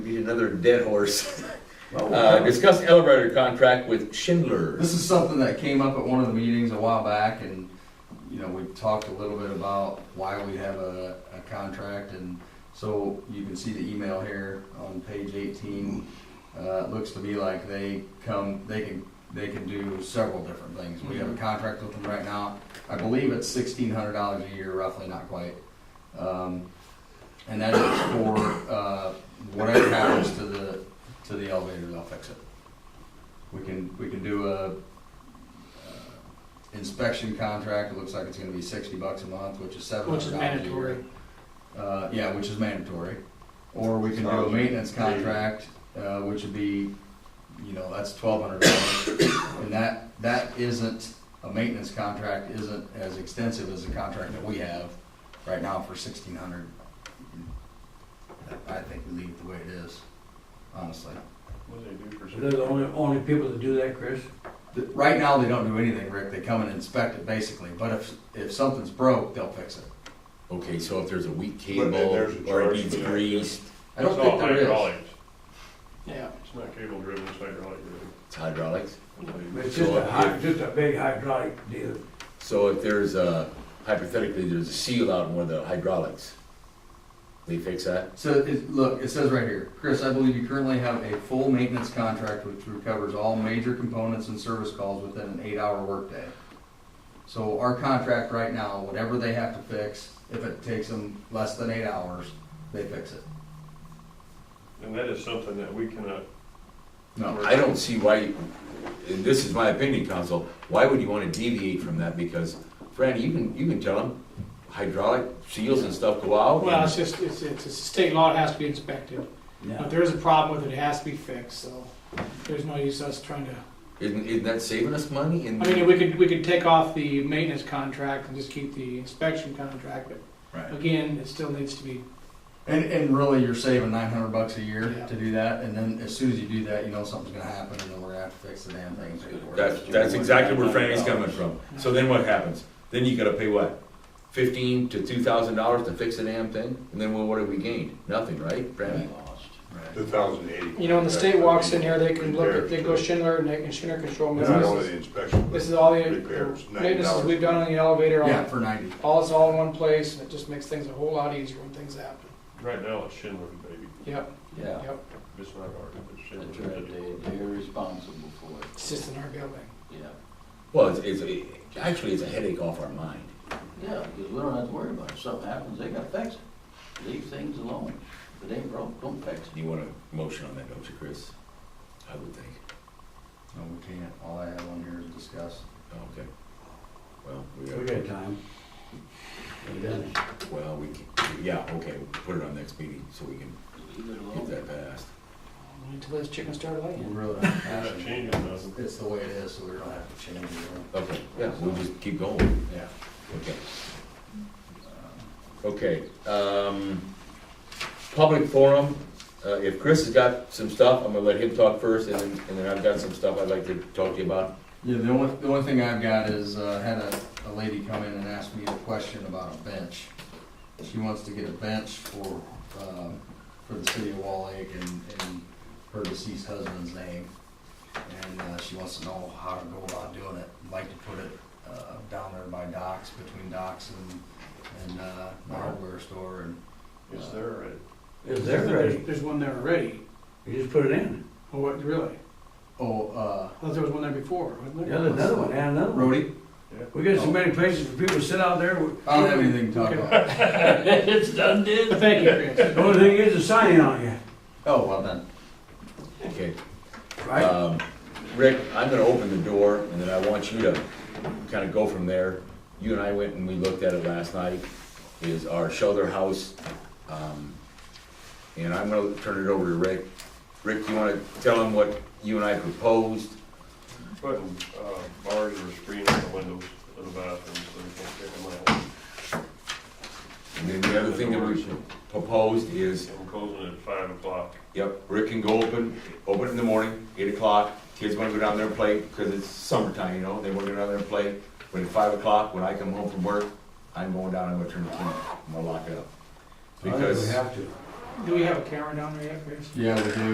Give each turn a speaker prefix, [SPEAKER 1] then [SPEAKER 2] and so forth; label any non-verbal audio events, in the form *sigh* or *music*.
[SPEAKER 1] Be another dead horse.
[SPEAKER 2] Well,
[SPEAKER 1] Uh, discuss elevator contract with Schindler.
[SPEAKER 2] This is something that came up at one of the meetings a while back, and, you know, we talked a little bit about why we have a, a contract, and so you can see the email here on page eighteen. Uh, it looks to be like they come, they can, they can do several different things. We have a contract with them right now. I believe it's sixteen hundred dollars a year, roughly, not quite. Um, and that is for, uh, whatever happens to the, to the elevator, they'll fix it. We can, we can do a uh, inspection contract, it looks like it's gonna be sixty bucks a month, which is seven
[SPEAKER 3] Which
[SPEAKER 2] hundred
[SPEAKER 3] is
[SPEAKER 2] dollars a year.
[SPEAKER 3] mandatory.
[SPEAKER 2] Uh, yeah, which is mandatory. Or we can do a maintenance contract, uh, which would be, you know, that's twelve hundred dollars. And that, that isn't, a maintenance contract isn't as extensive as the contract that we have right now for sixteen hundred. I think we leave it the way it is, honestly.
[SPEAKER 4] What do they do for?
[SPEAKER 3] They're the only, only people that do that, Chris.
[SPEAKER 2] Th- Right now, they don't do anything, Rick. They come and inspect it basically, but if, if something's broke, they'll fix it.
[SPEAKER 1] Okay, so if there's a weak
[SPEAKER 4] But then
[SPEAKER 1] cable
[SPEAKER 4] there's a
[SPEAKER 1] or it
[SPEAKER 4] charge
[SPEAKER 1] needs
[SPEAKER 4] for that.
[SPEAKER 1] greased,
[SPEAKER 2] I don't
[SPEAKER 4] It's
[SPEAKER 2] think
[SPEAKER 4] all
[SPEAKER 2] there is.
[SPEAKER 4] hydraulics.
[SPEAKER 3] Yeah.
[SPEAKER 4] It's not cable driven, it's hydraulic driven.
[SPEAKER 1] it's hydraulics.
[SPEAKER 3] But it's just a hy, just a big hydraulic deal.
[SPEAKER 1] So if there's a, hypothetically, there's a seal out in one of the hydraulics, they fix that?
[SPEAKER 2] So, it, look, it says right here, Chris, I believe you currently have a full maintenance contract which recovers all major components and service calls within an eight-hour workday. So our contract right now, whatever they have to fix, if it takes them less than eight hours, they fix it.
[SPEAKER 4] And that is something that we cannot,
[SPEAKER 2] No,
[SPEAKER 1] I don't see why, and this is my opinion, council, why would you want to deviate from that? Because, Fran, you can, you can tell them hydraulic seals and stuff go out.
[SPEAKER 5] Well, it's
[SPEAKER 1] and-
[SPEAKER 5] just, it's, it's, it's state law, it has to be inspected. If there is a problem with it, it has to be fixed, so there's no use us trying to,
[SPEAKER 1] Isn't, isn't that saving us money?
[SPEAKER 5] I mean, we could, we could take off the maintenance contract and just keep the inspection contract, but again, it still needs to be,
[SPEAKER 2] And, and really, you're saving nine hundred bucks a year
[SPEAKER 5] Yeah.
[SPEAKER 2] to do that, and then as soon as you do that, you know something's gonna happen, and then we're gonna have to fix the damn thing. to get it worked.
[SPEAKER 1] That's, that's exactly where Franny's coming from. So then what happens? Then you gotta pay what? Fifteen to two thousand dollars to fix the damn thing? And then well, what have we gained? Nothing, right, Fran?
[SPEAKER 2] Right.
[SPEAKER 4] two thousand eighty.
[SPEAKER 5] you know, when the state walks in here, they can look at, they can go Schindler and they can Schindler control.
[SPEAKER 4] Not only
[SPEAKER 5] This
[SPEAKER 4] the
[SPEAKER 5] is-
[SPEAKER 4] inspection.
[SPEAKER 5] this is all the
[SPEAKER 4] Repairs, $90.
[SPEAKER 5] maintenance we've done on the elevator,
[SPEAKER 2] Yeah,
[SPEAKER 5] all,
[SPEAKER 2] for ninety.
[SPEAKER 5] all is all in one place, and it just makes things a whole lot easier when things happen.
[SPEAKER 4] Right now, it's Schindler, baby.
[SPEAKER 5] Yep,
[SPEAKER 6] Yeah,
[SPEAKER 5] yep,
[SPEAKER 4] It's not ours, it's
[SPEAKER 6] that's
[SPEAKER 4] Schindler.
[SPEAKER 6] right, they, they're responsible for it,
[SPEAKER 5] it's just in our building.
[SPEAKER 6] yeah.
[SPEAKER 1] Well, it's, it's, it- actually, it's a headache off our mind.
[SPEAKER 6] Yeah, because we don't have to worry about it, if something happens, they gotta fix it, leave things alone, if it ain't broke, don't fix it.
[SPEAKER 1] You want a motion on that, don't you, Chris? I would think.
[SPEAKER 2] No, we can't, all I have on here is discuss.
[SPEAKER 1] Oh, Okay. Well, we
[SPEAKER 3] We
[SPEAKER 1] got,
[SPEAKER 3] got time. We got it.
[SPEAKER 1] well, we, can- yeah, okay, we'll put it on next meeting so we can
[SPEAKER 6] Leave it
[SPEAKER 1] get
[SPEAKER 6] alone. *laughs*
[SPEAKER 1] that passed.
[SPEAKER 5] Until those chickens start
[SPEAKER 2] We
[SPEAKER 5] laying.
[SPEAKER 2] really don't
[SPEAKER 4] We're
[SPEAKER 2] have
[SPEAKER 4] not
[SPEAKER 2] to
[SPEAKER 4] changing
[SPEAKER 2] change
[SPEAKER 4] nothing.
[SPEAKER 2] it. It's the way it is, so we don't have to change it.
[SPEAKER 1] Okay, yeah, we'll just keep going.
[SPEAKER 2] Yeah.
[SPEAKER 1] Okay. Uh, Okay, um, public forum, uh, if Chris has got some stuff, I'm gonna let him talk first, and then, and then I've got some stuff I'd like to talk to you about.
[SPEAKER 2] Yeah, the only, the only thing I've got is, uh, had a, a lady come in and ask me a question about a bench. She wants to get a bench for, um, for the city of Wall Lake and, and her deceased husband's name. And, uh, she wants to know how to go about doing it. I'd Like to put it, uh, down there by docks, between docks and, and, uh, the hardware store and,
[SPEAKER 4] It's uh, there, right?
[SPEAKER 3] Is there ready?
[SPEAKER 5] There's one there already.
[SPEAKER 3] You just put it in.
[SPEAKER 5] Oh, what, really?
[SPEAKER 2] oh, uh,
[SPEAKER 5] I thought there was one there before, wasn't there?
[SPEAKER 3] Yeah, there's another one, add another one.
[SPEAKER 2] Rhodey?
[SPEAKER 3] We got so many places for people to sit out there. We-
[SPEAKER 2] I don't have anything to talk about.
[SPEAKER 6] It's done, did.
[SPEAKER 5] Thank you, Chris.
[SPEAKER 3] The only thing is a sign on you,
[SPEAKER 2] Oh, well then.
[SPEAKER 1] Okay,
[SPEAKER 3] right?
[SPEAKER 1] um, Rick, I'm gonna open the door, and then I want you to kinda go from there. You and I went and we looked at it last night, is our shelter house, um, and I'm gonna turn it over to Rick. Rick, you wanna tell him what you and I proposed?
[SPEAKER 4] Putting, uh, bars or screen on the windows of the bathrooms so we can't get them out.
[SPEAKER 1] And then the other thing that we proposed is
[SPEAKER 4] And we're closing at five o'clock.
[SPEAKER 1] Yep, Rick can go open, open in the morning, eight o'clock, kids wanna go down there and play, because it's summertime, you know, they wanna go down there and play. But at five o'clock, when I come home from work, I'm going down, I'm gonna turn the key, I'm gonna lock it up.
[SPEAKER 3] I think Oh, we
[SPEAKER 1] Because,
[SPEAKER 3] have to.
[SPEAKER 5] Do we have a camera down there yet, Chris?
[SPEAKER 2] Yeah, we do.